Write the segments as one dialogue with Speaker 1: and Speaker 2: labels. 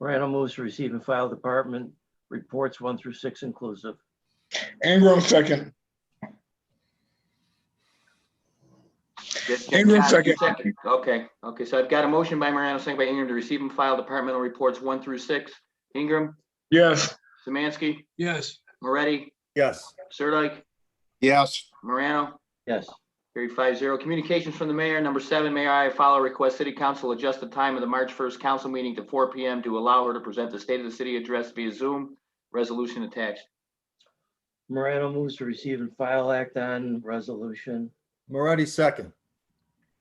Speaker 1: Morano moves to receive and file department reports one through six inclusive.
Speaker 2: Ingram second.
Speaker 3: Just- just-
Speaker 2: Ingram, second.
Speaker 3: Okay, okay, so I've got a motion by Morano, second by Ingram to receive and file departmental reports one through six. Ingram,
Speaker 2: Yes.
Speaker 3: Samansky,
Speaker 4: yes,
Speaker 3: Moretti,
Speaker 5: yes,
Speaker 3: Sirdike,
Speaker 6: yes,
Speaker 3: Morano,
Speaker 1: Yes,
Speaker 3: carried five zero. Communications from the mayor, number seven, Mayor Iafallo requests city council adjust the time of the March first council meeting to four P M to allow her to present the state of the city address via Zoom. Resolution attached.
Speaker 1: Morano moves to receive and file act on resolution.
Speaker 5: Moretti second,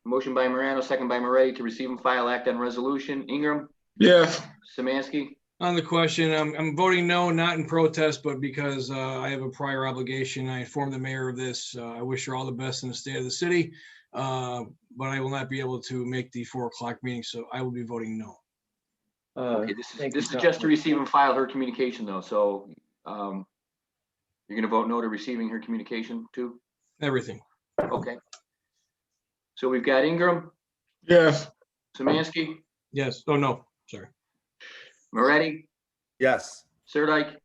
Speaker 3: Motion by Morano, second by Moretti to receive and file act on resolution. Ingram,
Speaker 2: Yes.
Speaker 3: Samansky,
Speaker 4: on the question, I'm, I'm voting no, not in protest, but because uh, I have a prior obligation. I informed the mayor of this. Uh, I wish her all the best in the state of the city. uh, But I will not be able to make the four o'clock meeting, so I will be voting no.
Speaker 1: Uh,
Speaker 3: Okay, this is,
Speaker 1: thank
Speaker 3: this
Speaker 1: you,
Speaker 3: is just to
Speaker 1: Councilman.
Speaker 3: receive and file her communication though, so, um, you're gonna vote no to receiving her communication too?
Speaker 4: Everything,
Speaker 3: Okay. So we've got Ingram,
Speaker 2: Yes.
Speaker 3: Samansky,
Speaker 4: yes, oh, no, sorry,
Speaker 3: Moretti,
Speaker 5: yes,
Speaker 3: Sirdike,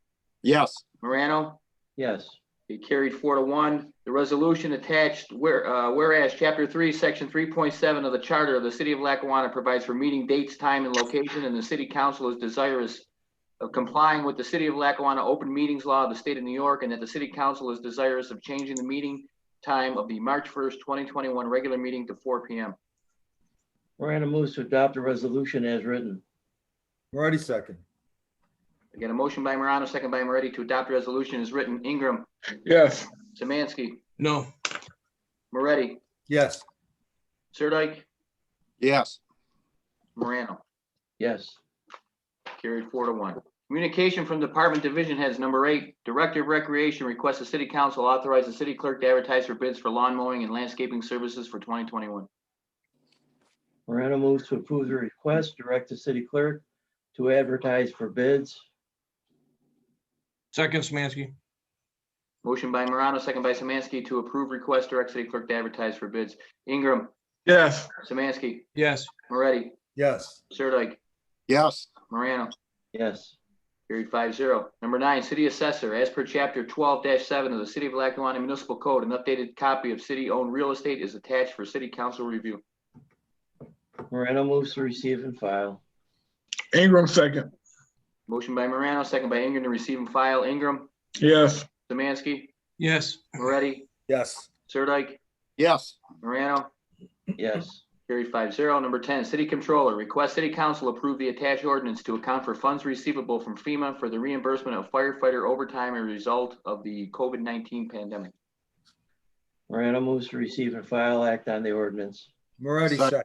Speaker 6: yes,
Speaker 3: Morano.
Speaker 1: Yes,
Speaker 3: It carried four to one. The resolution attached, where, uh, whereas Chapter Three, Section three point seven of the Charter of the City of Lackawanna provides for meeting dates, time, and location, and the city council is desirous of complying with the City of Lackawanna Open Meetings Law of the State of New York, and that the city council is desirous of changing the meeting time of the March first, twenty twenty-one regular meeting to four P M.
Speaker 1: Morano moves to adopt a resolution as written.
Speaker 5: Moretti second,
Speaker 3: Again, a motion by Morano, second by Moretti to adopt resolution is written. Ingram,
Speaker 2: Yes.
Speaker 3: Samansky,
Speaker 4: no,
Speaker 3: Moretti,
Speaker 5: yes,
Speaker 3: Sirdike,
Speaker 6: yes,
Speaker 3: Morano.
Speaker 1: Yes,
Speaker 3: Carried four to one. Communication from Department Division Heads, number eight, Director of Recreation requests the city council authorize the city clerk to advertise for bids for lawn mowing and landscaping services for twenty twenty-one.
Speaker 1: Morano moves to approve the request, direct the city clerk to advertise for bids.
Speaker 4: second Smansky,
Speaker 3: Motion by Morano, second by Samansky to approve request, direct city clerk to advertise for bids. Ingram,
Speaker 2: Yes.
Speaker 3: Samansky,
Speaker 4: yes,
Speaker 3: Moretti,
Speaker 5: yes,
Speaker 3: Sirdike,
Speaker 6: yes,
Speaker 3: Morano.
Speaker 1: Yes,
Speaker 3: Carried five zero. Number nine, city assessor, as per chapter twelve seven of the City of Lackawanna Municipal Code, an updated copy of city-owned real estate is attached for city council review.
Speaker 1: Morano moves to receive and file.
Speaker 2: Ingram second.
Speaker 3: Motion by Morano, second by Ingram to receive and file. Ingram,
Speaker 2: Yes.
Speaker 3: Samansky,
Speaker 4: yes,
Speaker 3: Moretti,
Speaker 5: yes,
Speaker 3: Sirdike,
Speaker 6: yes,
Speaker 3: Morano,
Speaker 1: Yes,
Speaker 3: carried five zero. Number ten, city controller, request city council approve the attached ordinance to account for funds receivable from FEMA for the reimbursement of firefighter overtime as a result of the COVID nineteen pandemic.
Speaker 1: Morano moves to receive and file act on the ordinance.
Speaker 5: Moretti
Speaker 6: Second.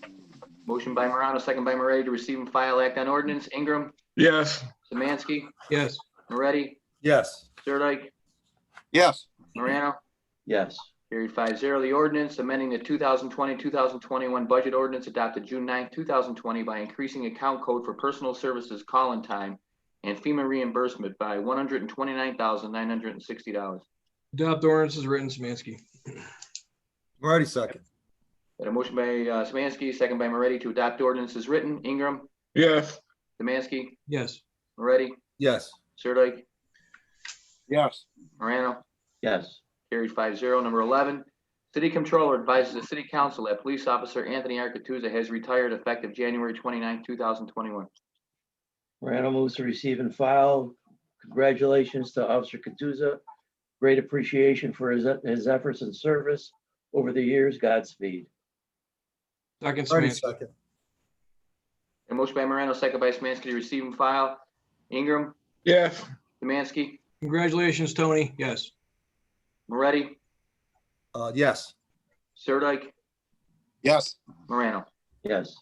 Speaker 5: second,
Speaker 3: Motion by Morano, second by Moretti to receive and file act on ordinance. Ingram,
Speaker 2: Yes.
Speaker 3: Samansky,
Speaker 4: yes,
Speaker 3: Moretti,
Speaker 5: yes,
Speaker 3: Sirdike,
Speaker 6: yes,
Speaker 3: Morano,
Speaker 1: Yes,
Speaker 3: Carried five zero. The ordinance amending the 2020-2021 budget ordinance adopted June 9, two thousand twenty by increasing account code for personal services call-in time and FEMA reimbursement by one hundred and twenty-nine thousand nine hundred and sixty dollars.
Speaker 4: adopt ordinance is written, Smansky,
Speaker 5: Moretti second,
Speaker 3: Got a motion by uh, Samansky, second by Moretti to adopt ordinance as written. Ingram,
Speaker 2: Yes.
Speaker 3: Samansky,
Speaker 4: yes,
Speaker 3: Moretti,
Speaker 5: yes,
Speaker 3: Sirdike,
Speaker 6: yes,
Speaker 3: Morano.
Speaker 1: yes,
Speaker 3: Carried five zero. Number eleven, city controller advises the city council that police officer Anthony Arcatuzza has retired effective January 29, thousand twenty-one.
Speaker 1: Morano moves to receive and file. Congratulations to Officer Katuza. Great appreciation for his, his efforts and service over the years. Godspeed.
Speaker 4: second
Speaker 5: Moretti
Speaker 4: Smansky,
Speaker 5: second,
Speaker 3: A motion by Morano, second by Samansky to receive and file. Ingram,
Speaker 2: Yes.
Speaker 3: Samansky,
Speaker 4: congratulations, Tony, yes,
Speaker 3: Moretti,
Speaker 5: uh, yes,
Speaker 3: Sirdike,
Speaker 6: yes,
Speaker 3: Morano.
Speaker 1: Yes,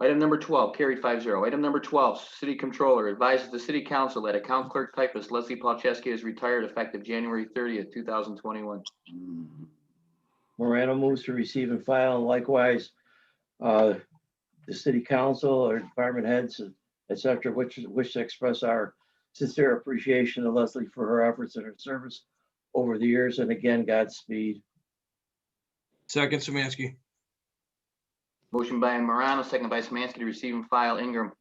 Speaker 3: Item number twelve, carried five zero. Item number twelve, city controller advises the city council that account clerk typist Leslie Palczewski is retired effective January thirtieth, two thousand twenty-one.
Speaker 1: Morano moves to receive and file. and Likewise, uh, the city council or department heads, et cetera, which wish to express our sincere appreciation to Leslie for her efforts and her service over the years. And again, Godspeed.
Speaker 4: second Smansky,
Speaker 3: Motion by Morano, second by Samansky to receive and file. Ingram,